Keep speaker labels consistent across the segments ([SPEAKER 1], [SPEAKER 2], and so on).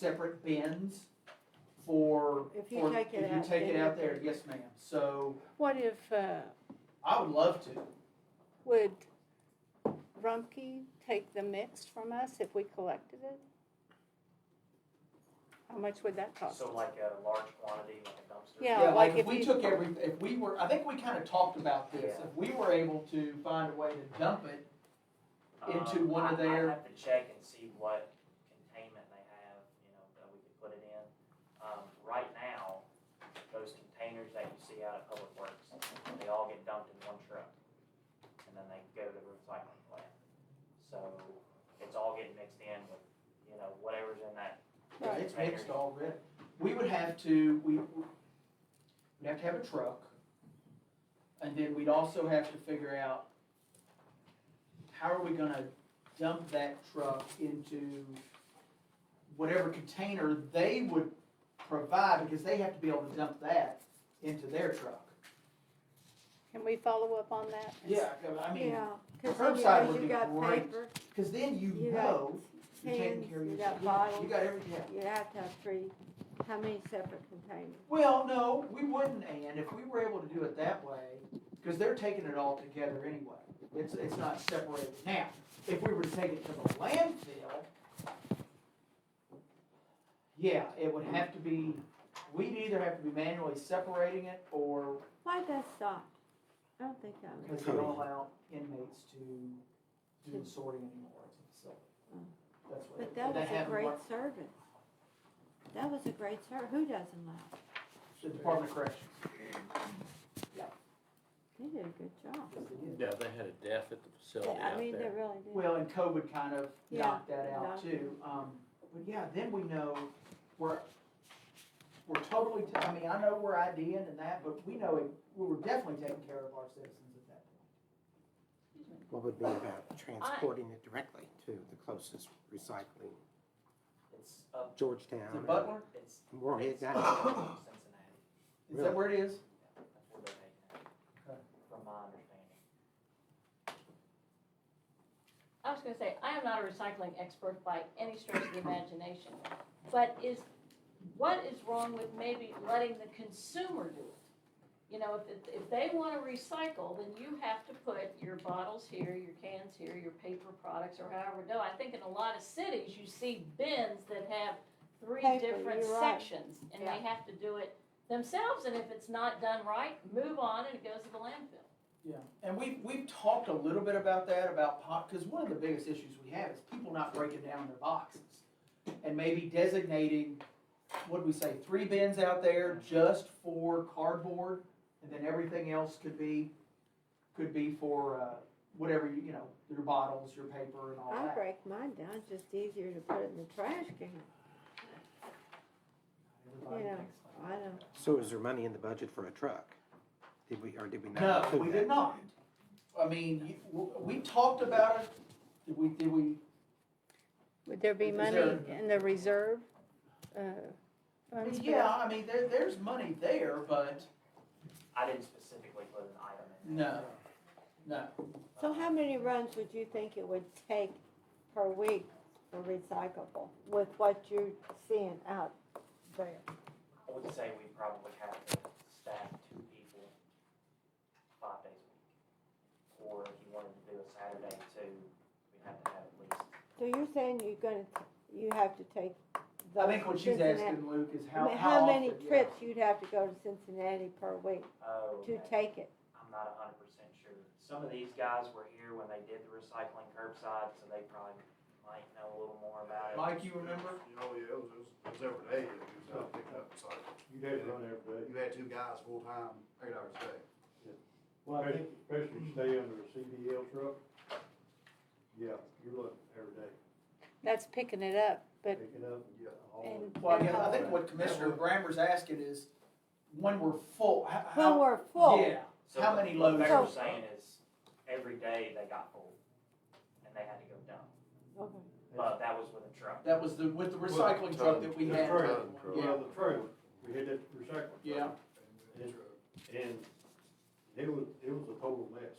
[SPEAKER 1] separate bins for.
[SPEAKER 2] If you
[SPEAKER 1] for-
[SPEAKER 2] take it out,
[SPEAKER 1] If you take it
[SPEAKER 2] then-
[SPEAKER 1] out there, yes, ma'am. So
[SPEAKER 2] What if, uh,
[SPEAKER 1] I would love to.
[SPEAKER 2] would Rumpke take the mix from us if we collected it? How much would that cost?
[SPEAKER 3] So like a large quantity, like a dumpster?
[SPEAKER 2] Yeah, like if
[SPEAKER 1] we
[SPEAKER 2] you-
[SPEAKER 1] took every, if we were, I think we kind of talked about this.
[SPEAKER 3] Yeah.
[SPEAKER 1] If we were able to find a way to dump it, into
[SPEAKER 3] Um,
[SPEAKER 1] one of
[SPEAKER 3] I-
[SPEAKER 1] their-
[SPEAKER 3] I'd have to check and see what containment they have, you know, that we could put it in. Um, right now, those containers that you see out at Public Works, they all get dumped in one truck. And then they go to the recycling plant. So it's all getting mixed in with, you know, whatever's in that.
[SPEAKER 1] Yeah,
[SPEAKER 2] Right.
[SPEAKER 1] it's mixed already. We would have to, we, we'd have to have a truck. And then we'd also have to figure out, how are we gonna dump that truck into whatever container they would provide, because they have to be able to dump that into their truck.
[SPEAKER 2] Can we follow up on that?
[SPEAKER 1] Yeah, I mean,
[SPEAKER 4] Yeah,
[SPEAKER 1] 'cause
[SPEAKER 4] cause
[SPEAKER 1] then, you curbside
[SPEAKER 4] you
[SPEAKER 1] know, would
[SPEAKER 4] know,
[SPEAKER 1] you be
[SPEAKER 4] you
[SPEAKER 1] got
[SPEAKER 4] got
[SPEAKER 1] great.
[SPEAKER 4] paper,
[SPEAKER 1] cause then you
[SPEAKER 4] You
[SPEAKER 1] know you're taking
[SPEAKER 4] pins,
[SPEAKER 1] care of
[SPEAKER 4] you
[SPEAKER 1] yourself.
[SPEAKER 4] got
[SPEAKER 1] Yeah,
[SPEAKER 4] bottles,
[SPEAKER 1] You got everything, yeah.
[SPEAKER 4] you have to have three, how many separate containers?
[SPEAKER 1] Well, no, we wouldn't, and if we were able to do it that way, because they're taking it all together anyway. It's, it's not separated. Now, if we were to take it to the landfill, yeah, it would have to be, we'd either have to be manually separating it or,
[SPEAKER 4] Why'd that stop? I don't think that was,
[SPEAKER 1] because they don't allow inmates to do the sorting anymore, so. That's what,
[SPEAKER 4] Mm. but
[SPEAKER 1] that
[SPEAKER 4] that was a
[SPEAKER 1] happened,
[SPEAKER 4] great
[SPEAKER 1] what-
[SPEAKER 4] service. That was a great service. who doesn't laugh?
[SPEAKER 1] the Department of Corrections,
[SPEAKER 4] They did a good job.
[SPEAKER 1] yes, they did.
[SPEAKER 5] Yeah, they had a death at the facility
[SPEAKER 4] I
[SPEAKER 5] out
[SPEAKER 4] mean, they
[SPEAKER 5] there.
[SPEAKER 4] really did.
[SPEAKER 1] Well, and COVID kind of
[SPEAKER 4] Yeah,
[SPEAKER 1] knocked that out
[SPEAKER 4] knocked it.
[SPEAKER 1] too. Um, but yeah, then we know we're, we're totally, ta- I mean, I know we're IDing and that, but we know it- we were definitely taking care of our citizens at that point.
[SPEAKER 6] What would be about transporting it directly to the closest recycling,
[SPEAKER 3] It's up,
[SPEAKER 6] Georgetown?
[SPEAKER 1] Is it Butler?
[SPEAKER 3] it's.
[SPEAKER 6] Well, it-
[SPEAKER 3] it's
[SPEAKER 6] that-
[SPEAKER 3] up to Cincinnati.
[SPEAKER 1] Is that where it is?
[SPEAKER 3] That's where they're taking
[SPEAKER 1] Okay.
[SPEAKER 3] it, from my understanding.
[SPEAKER 7] I was gonna say, I am not a recycling expert by any stretch of the imagination, but is, what is wrong with maybe letting the consumer do it? You know, if, if they wanna recycle, then you have to put your bottles here, your cans here, your paper products, or however it go. I think in a lot of cities, you see bins that have three
[SPEAKER 2] Paper,
[SPEAKER 7] different
[SPEAKER 2] you're right.
[SPEAKER 7] sections, and they have to do it themselves, and if it's not done right, move on and it goes to the landfill.
[SPEAKER 1] Yeah, and we've, we've talked a little bit about that, about pot, because one of the biggest issues we have is people not breaking down their boxes. And maybe designating, what do we say, three bins out there just for cardboard, and then everything else could be, could be for, uh, whatever, you you know, your bottles, your paper and all
[SPEAKER 4] I
[SPEAKER 1] that.
[SPEAKER 4] break mine down, it's just easier to put it in the trash can.
[SPEAKER 1] Everybody
[SPEAKER 4] Yeah,
[SPEAKER 1] thinks like
[SPEAKER 4] I know.
[SPEAKER 6] So is there money in the budget for a truck? Did we, or did we not
[SPEAKER 1] No,
[SPEAKER 6] include
[SPEAKER 1] we
[SPEAKER 6] that?
[SPEAKER 1] did not. I mean, you- w- we talked about it, did we, did we,
[SPEAKER 2] Would there be
[SPEAKER 1] Is
[SPEAKER 2] money
[SPEAKER 1] there-
[SPEAKER 2] in the reserve? uh, funds for
[SPEAKER 1] yeah,
[SPEAKER 2] that?
[SPEAKER 1] I mean, there, there's money there, but
[SPEAKER 3] I didn't specifically put an item in.
[SPEAKER 1] no, no.
[SPEAKER 4] So
[SPEAKER 3] Um,
[SPEAKER 4] how many runs would you think it would take per week for recyclable with what you're seeing out there?
[SPEAKER 3] I would say we probably have to staff two people five days a week. Or if you wanted to do a Saturday too, we'd have to have at least,
[SPEAKER 4] So you're saying you're gonna, you have to take the.
[SPEAKER 1] I think what she's
[SPEAKER 4] Cincinnati-
[SPEAKER 1] asking, Luke, is
[SPEAKER 4] I
[SPEAKER 1] how,
[SPEAKER 4] mean,
[SPEAKER 1] how
[SPEAKER 4] How
[SPEAKER 1] often.
[SPEAKER 4] many
[SPEAKER 1] yeah.
[SPEAKER 4] trips you'd have to go to Cincinnati per week
[SPEAKER 3] oh,
[SPEAKER 4] to
[SPEAKER 3] okay.
[SPEAKER 4] take it?
[SPEAKER 3] I'm not a hundred percent sure. Some of these guys were here when they did the recycling curbside, so they probably might know a little more about it.
[SPEAKER 1] Mike, you remember?
[SPEAKER 8] Oh, yeah, it was, it was, it was every day, it was out picking up recycling.
[SPEAKER 9] You did run every day.
[SPEAKER 8] You had two guys full-time, eight hours a day.
[SPEAKER 9] Well, I think. Especially stay under a CDL truck. Yeah, you're looking every day,
[SPEAKER 2] That's picking it up, but,
[SPEAKER 9] picking up and
[SPEAKER 8] Yeah.
[SPEAKER 9] hauling.
[SPEAKER 2] and.
[SPEAKER 1] Well, I
[SPEAKER 2] and
[SPEAKER 1] guess, I
[SPEAKER 2] how-
[SPEAKER 1] think what Commissioner Grammer's asking is, when we're full, how,
[SPEAKER 4] When
[SPEAKER 1] how-
[SPEAKER 4] we're full,
[SPEAKER 1] Yeah, how many loads?
[SPEAKER 3] What they
[SPEAKER 4] Oh.
[SPEAKER 3] were saying is, every day they got full, and they had to go dump.
[SPEAKER 4] Okay.
[SPEAKER 3] But that was with a truck.
[SPEAKER 1] that was the, with the recycling truck that we
[SPEAKER 9] The
[SPEAKER 1] had.
[SPEAKER 9] trailer,
[SPEAKER 1] Yeah.
[SPEAKER 9] well, the trailer, we had that recycling.
[SPEAKER 1] Yeah.
[SPEAKER 9] And it was, it was a total mess,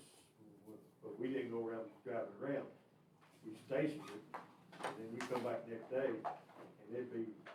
[SPEAKER 9] but we didn't go around driving around. We stationed it, and then we come back next day, and it'd be